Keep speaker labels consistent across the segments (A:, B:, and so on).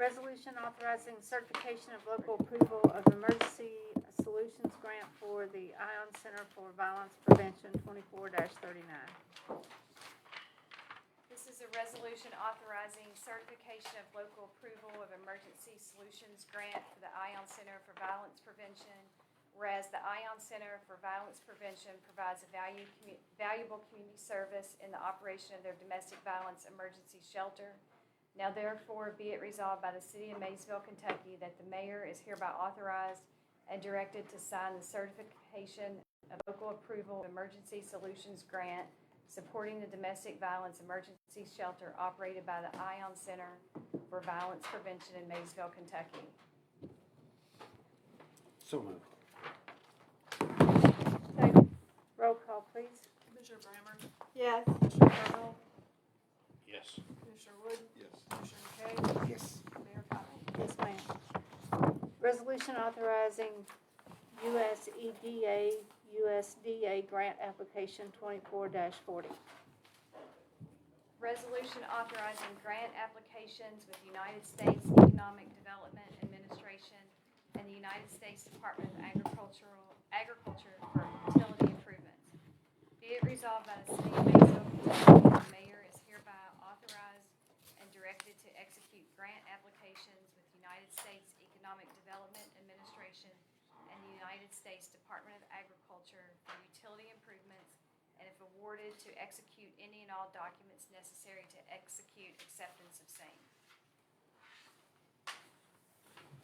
A: Resolution authorizing certification of local approval of emergency solutions grant for the Ion Center for Violence Prevention twenty-four thirty-nine.
B: This is a resolution authorizing certification of local approval of emergency solutions grant for the Ion Center for Violence Prevention. Whereas the Ion Center for Violence Prevention provides a value, commu- valuable community service in the operation of their domestic violence emergency shelter. Now therefore be it resolved by the city of Maysville, Kentucky, that the mayor is hereby authorized and directed to sign the certification of local approval of emergency solutions grant supporting the domestic violence emergency shelter operated by the Ion Center for Violence Prevention in Maysville, Kentucky.
C: So moved.
A: Roll call, please.
D: Commissioner Brammer?
A: Yes.
D: Commissioner Cardinal?
C: Yes.
D: Commissioner Wood?
C: Yes.
D: Commissioner McKay?
C: Yes.
D: Mayor Cottrell?
A: Yes, ma'am. Resolution authorizing E US EDA, USDA grant application twenty-four forty.
B: Resolution authorizing grant applications with United States Economic Development Administration and the United States Department of Agricultural, Agriculture for fertility improvements. Be it resolved by the City of Maysville, Kentucky, that the mayor is hereby authorized and directed to execute grant applications with United States Economic Development Administration and the United States Department of Agriculture for utility improvements and if awarded, to execute any and all documents necessary to execute acceptance of same.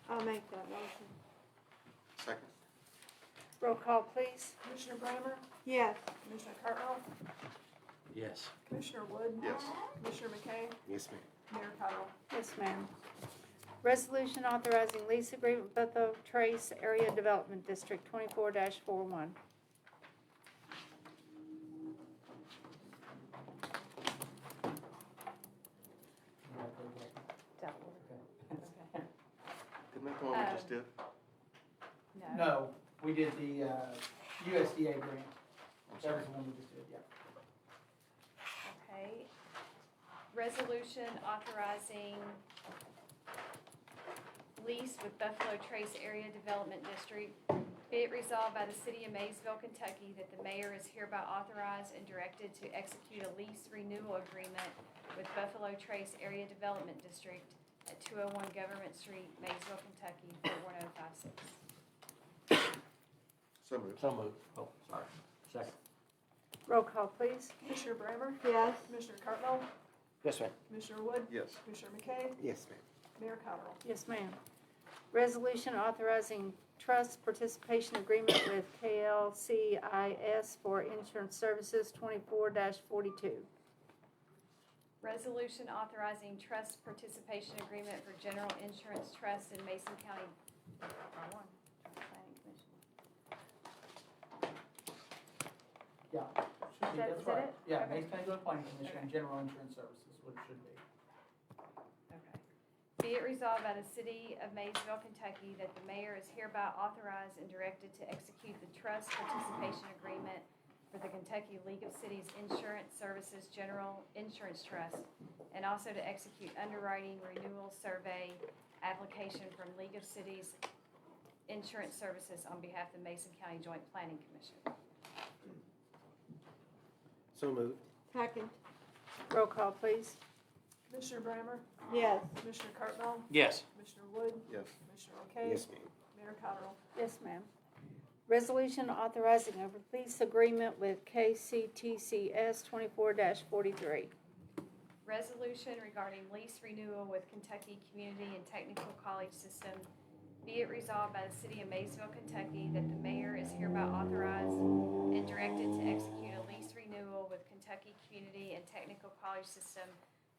A: I'll make that motion.
C: Second.
A: Roll call, please.
D: Commissioner Brammer?
A: Yes.
D: Commissioner Cardinal?
E: Yes.
D: Commissioner Wood?
C: Yes.
D: Commissioner McKay?
C: Yes, ma'am.
D: Mayor Cottrell?
A: Yes, ma'am. Resolution authorizing lease agreement with the Trace Area Development District twenty-four 41
C: Isn't that the one we just did?
F: No, we did the uh, USDA grant.
C: I'm
F: That
C: sorry.
F: was the one we just did, yeah.
B: Okay. Resolution authorizing lease with Buffalo Trace Area Development District. Be it resolved by the City of Maysville, Kentucky, that the mayor is hereby authorized and directed to execute a lease renewal agreement with Buffalo Trace Area Development District at 201 Government Street, Maysville, Kentucky, 41056.
C: So moved.
E: So moved. Oh, sorry. Second.
A: Roll call, please.
D: Commissioner Brammer?
A: Yes.
D: Commissioner Cardinal?
E: Yes, ma'am.
D: Commissioner Wood?
C: Yes.
D: Commissioner McKay?
C: Yes, ma'am.
D: Mayor Cottrell?
A: Yes, ma'am. Resolution authorizing trust participation agreement with KLCIS for insurance services twenty-four forty-two.
B: Resolution authorizing trust participation agreement for general insurance trust in Mason County. Wrong one. Planning Commission.
F: Yeah. Should be,
B: That-
F: that's
B: is that
F: right.
B: it?
F: Yeah,
B: Okay.
F: Mays County Joint Planning Commission, and General Insurance Services, what it should be.
B: Okay. Be it resolved by the city of Maysville, Kentucky, that the mayor is hereby authorized and directed to execute the trust participation agreement for the Kentucky League of Cities Insurance Services General Insurance Trust, and also to execute underwriting renewal survey application from League of Cities Insurance Services on behalf of the Mason County Joint Planning Commission.
C: So moved.
A: Second. Roll call, please.
D: Commissioner Brammer?
A: Yes.
D: Commissioner Cardinal?
E: Yes.
D: Commissioner Wood?
C: Yes.
D: Commissioner McKay?
C: ma'am.
D: Mayor Cottrell?
A: Yes, ma'am. Resolution authorizing a release agreement with KCTCS twenty-four forty-three.
B: Resolution regarding lease renewal with Kentucky Community and Technical College System. Be it resolved by the City of Maysville, Kentucky, that the mayor is hereby authorized and directed to execute a lease renewal with Kentucky Community and Technical College System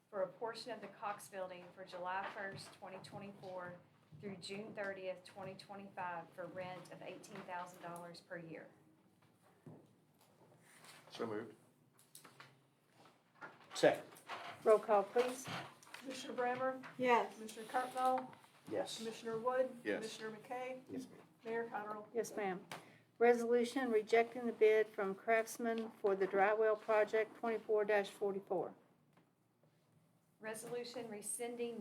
B: for a portion of the Cox Building for July 1st, 2024 through June 30th, 2025 for rent of $18,000 per year.
C: So moved.
E: Second.
A: Roll call, please.
D: Commissioner Brammer?
A: Yes.
D: Commissioner Cardinal?
E: Yes.
D: Commissioner Wood?
C: Yes.
D: Commissioner McKay?
C: Yes, ma'am.
D: Mayor Cottrell?
A: Yes, ma'am. Resolution rejecting the bid from Craftsman for the drywell project twenty-four forty-four.
B: Resolution rescinding